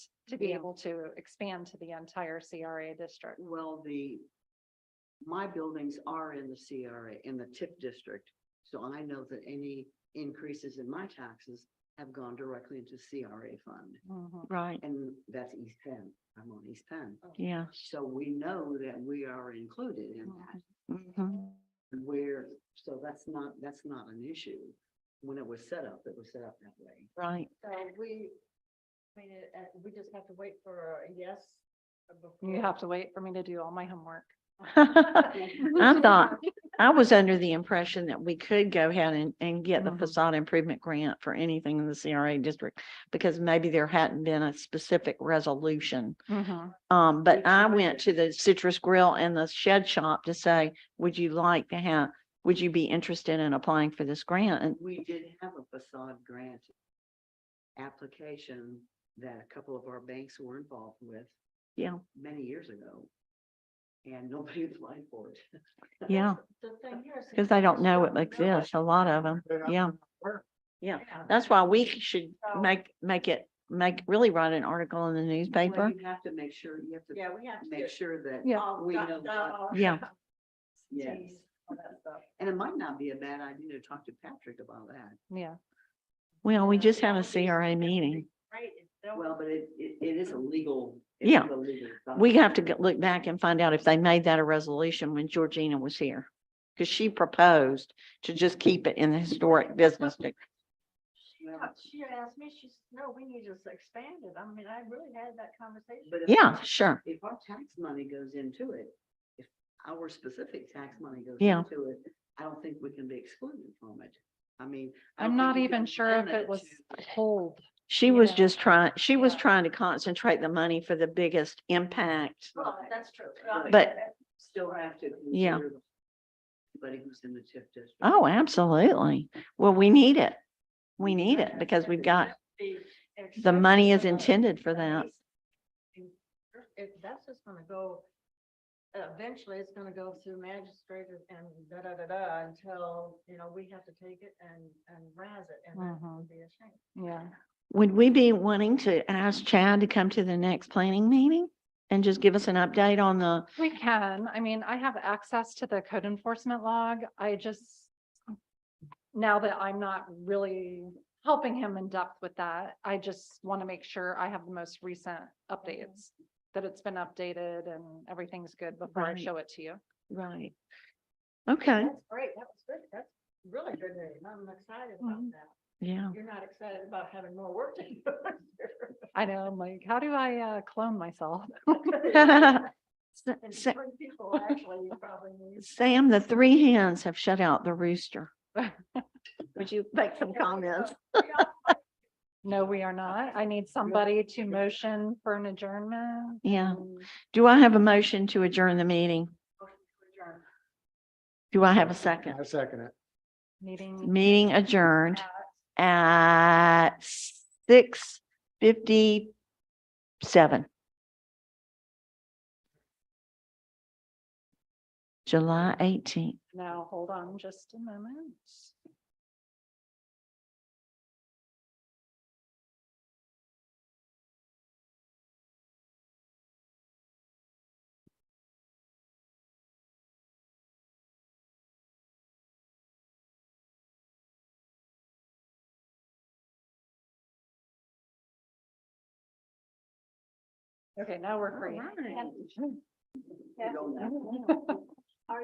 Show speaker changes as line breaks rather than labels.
to be
Yeah.
able to expand to the entire CRA district.
Well, the, my buildings are in the CRA, in the TIP district. So I know that any increases in my taxes have gone directly into CRA fund.
Mhm.
Right,
And that's East Penn. I'm on East Penn.
yeah.
So we know that we are included in that.
Mhm.
And Where, so that's not, that's not an issue. When it was set up, it was set up that way.
Right,
So we, I mean, uh, uh, we just have to wait for a yes. uh,
You
before-
have to wait for me to do all my homework.
I thought, I was under the impression that we could go ahead and, and get the
Mhm.
facade improvement grant for anything in the CRA district. Because maybe there hadn't been a specific resolution.
Mhm.
Um, but
We
I
tried
went
it.
to the Citrus Grill and the Shed Shop to say, would you like to have, would you be interested in applying for this grant? And
We did have a facade grant application that a couple of our banks were involved with.
Yeah.
Many years ago. And nobody applied for it.
yeah,
The thing here is.
because they don't know it
Don't know
exists, a lot of them, yeah. Yeah, that's why we should
So-
make, make it, make, really write an article in the
Well,
newspaper.
You have to make sure, you have to
Yeah, we have to. do
make
it.
sure that,
Yeah.
Um,
All
we
dot-
know
dot all
Yeah.
yes.
Ts, all that stuff.
And it might not be a bad idea to talk to Patrick about that.
Yeah,
Well, we
Yeah,
just
that
had a
would be-
CRA
that would be
meeting.
Great. if there
Well,
was-
but it, it, it is a legal. it
Yeah.
is a legal
We
document.
have to go- look back and find out if they made that a resolution when Georgina was here. Because she proposed to just keep it in the historic business. district.
She
Well-
talked- She asked me, she's, no, we need to s- expand it. I mean, I really had that conversation.
But if-
Yeah, sure.
If our tax money goes into it, if our specific tax money goes
Yeah.
into it, I don't think we can be excluded from it. I mean. I
I'm
don't think
not
you
even
can
sure if
limit
it was
to-
hold.
She
You
was
know,
just trying, she was
yeah.
trying to concentrate the money for the biggest impact.
Well, that's true. I mean,
But-
that-
Still have to.
Yeah.
consider the- Anybody who's in the TIF district.
Oh, absolutely. Well, we need it. We need it
that-
because we've
that
got,
would be
the money is
acceptable.
intended for that.
If that's just gonna go, eventually it's gonna go through magistrate and da, da, da, da, until, you know, we have to take it and, and razz it and that
Mhm.
would be a shame.
Yeah.
Would we be wanting to ask Chad to come to the next planning meeting and just give us an update on the,
We can. I mean, I have access to the code enforcement log. I just, now that I'm not really helping him in depth with that, I just want to make sure I have the most recent updates, that it's been updated and everything's good before I
Right.
show it to you.
right? Okay,
That's great, that was good, that's really good news, I'm excited about
Mhm.
that.
yeah.
You're not excited about having more work to do.
I know, I'm like, how do I uh, clone myself?
Sa-
And
Sa-
three people actually you probably need.
Sam, the three hens have shut out the rooster. Would you make some comments?
No, we are not. I need somebody to motion for an adjournment.
Yeah.
and-
Do I have a motion to adjourn the meeting? Do I have a second?
I second it.
Meeting.
Meeting adjourned at six fifty-seven. July eighteenth.
Now, hold on just a moment. Okay, now we're free.
All right. We don't know.